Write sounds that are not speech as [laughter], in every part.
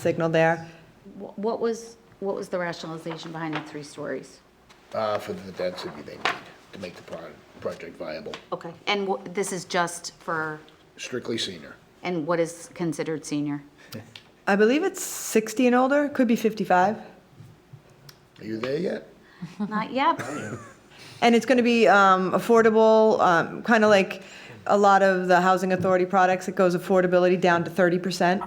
signal there. Wh- What was, what was the rationalization behind the three stories? uh, for the density they need to make the pro- project viable. Okay, and wh- this is just for, Strictly senior. and what is considered senior? I believe it's 60 and older, could be 55. Are you there yet? [laughs] Not yet. And it's going to be um, affordable, um, kind of like a lot of the housing authority products, it goes affordability down to 30%,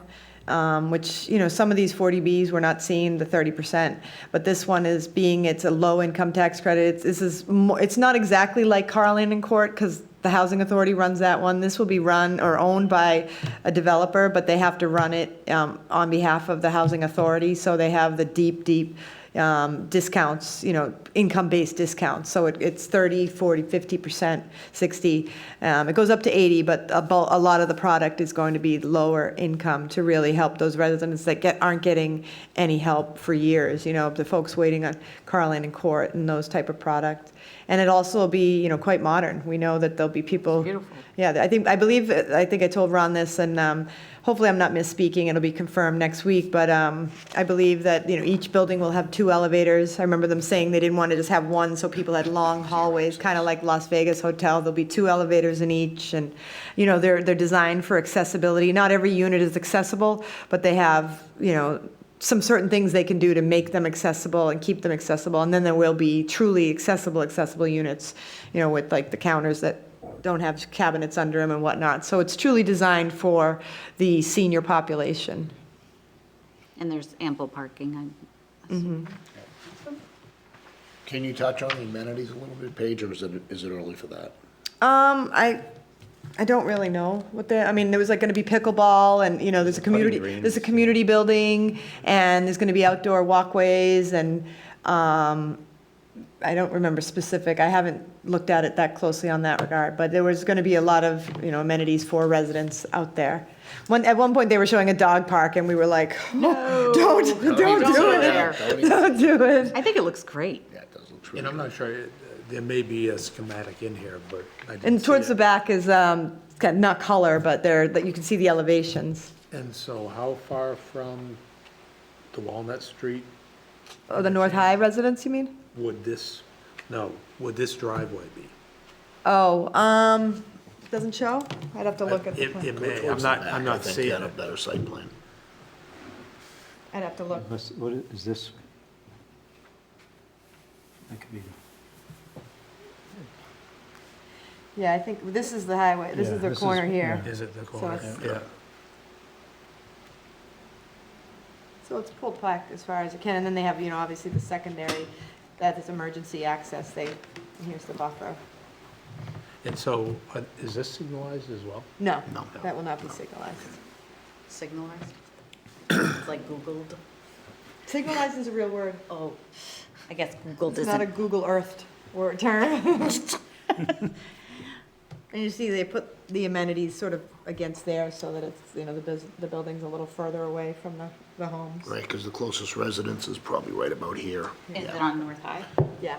um, which, you know, some of these 40Bs, we're not seeing the 30%. But this one is being, it's a low income tax credit. It's- This is, mo- it's not exactly like Carlin and Court because the housing authority runs that one. This will be run or owned by a developer, but they have to run it um, on behalf of the housing authority. So they have the deep, deep um, discounts, you know, income-based discounts. So it- it's 30, 40, 50%, 60. Um, It goes up to 80, but a bul- a lot of the product is going to be lower income to really help those residents that get, aren't getting any help for years, you know, the folks waiting on Carlin and Court and those type of products. And it also will be, you know, quite modern. We know that there'll be people. Beautiful. Yeah, I think, I believe, I think I told Ron this, and um, hopefully I'm not misspeaking, it'll be confirmed next week, but um, I believe that, you know, each building will have two elevators. I remember them saying they didn't want to just have one, so people had long hallways, kind of like Las Vegas Hotel, there'll be two elevators in each, and, you know, they're, they're designed for accessibility. Not every unit is accessible, but they have, you know, some certain things they can do to make them accessible and keep them accessible, and then there will be truly accessible, accessible units, you know, with like the counters that don't have cabinets under them and whatnot. So it's truly designed for the senior population. And there's ample parking. I- Can you touch on the amenities a little bit, Paige, or is it, is it early for that? Um, I, I don't really know what the, I mean, there was like gonna be pickleball and, you know, there's a community, there's a community building and there's gonna be outdoor walkways and, um, I don't remember specific, I haven't looked at it that closely on that regard, but there was gonna be a lot of, you know, amenities for residents out there. One, at one point, they were showing a dog park and we were like, [laughs] don't, don't do go it, there. [laughs] don't do it. I think it looks great. Yeah, it does look And true. I'm not sure, uh, there may be a schematic in here, but I didn't And see towards it. the back is, um, kind of not color, but there, that you can see the elevations. And so how far from the Walnut Street Oh, the North High residents, you mean? would this, no, would this driveway be? Oh, um, doesn't show? I'd have to look at the It, plan. it may, I'm not, I'm not I think you seeing had a it. better site plan. I'd have to look. What's, what i- is this? That could be, Yeah, I think, this is the highway, this Yeah, is their this is- corner here. Is it the So corner? it's- Yeah. So it's pulled back as far as it can, and then they have, you know, obviously the secondary, that is emergency access, they, and here's the buffer. And so uh, is this signalized as well? No, No. that will not be signalized. Signalized? It's like Googled. Signalized is a real word. Oh, I guess Googled It's not a isn't. Google Earthed word [laughs] term. And you see, they put the amenities sort of against there so that it's, you know, the bus, the building's a little further away from the, the homes. Right, because the closest residence is probably right about here. Is it on North High? Yeah.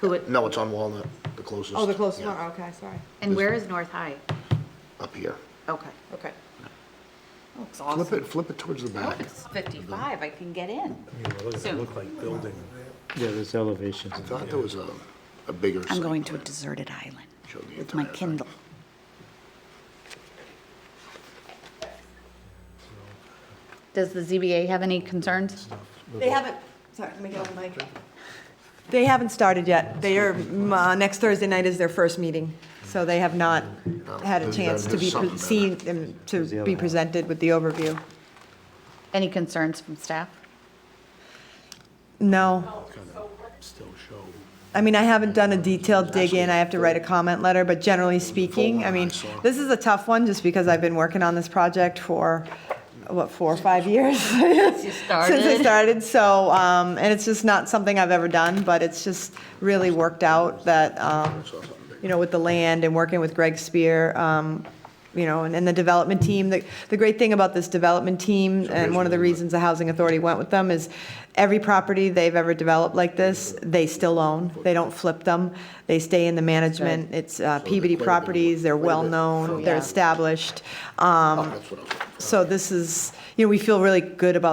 Who, it- No, it's on Walnut, the closest. Oh, the closest one, yeah, okay, sorry. and where is North High? Up here. Okay. Okay. Looks Flip awesome. it, flip it towards the Oh, back. It's 55, I can get in. I mean, it looks- So- it looked like building. yeah, there's elevations. I thought there was a, a bigger site. I'm going to a plan. deserted island Show the with my entire site. Kindle. Does the ZBA have any concerns? They haven't, sorry, let me get on the mic. They haven't started yet. They are, m- uh, next Thursday night is their first meeting, so they have not had a Oh, there's- chance to there's be something pre- better. seen and to be presented with the overview. Any concerns from staff? No. Still show. I mean, I haven't done a detailed dig in, I have to write a comment letter, but generally speaking, I mean, this is a tough one, just because I've been working on this project for, what, four or five years? [laughs] Since you Since I started. started, so, um, and it's just not something I've ever done, but it's just really worked out that, um, Saw something big. you know, with the land and working with Greg Spear, um, you know, and, and the development team. The, the great thing about this development team, and one of the reasons the Housing Authority went with them, is every property they've ever developed like this, they still own. They don't flip them. They stay in the management. It's uh, Peabody Properties, they're well-known, they're established. Um, That's what I was looking for. So this is, you know, we feel really good about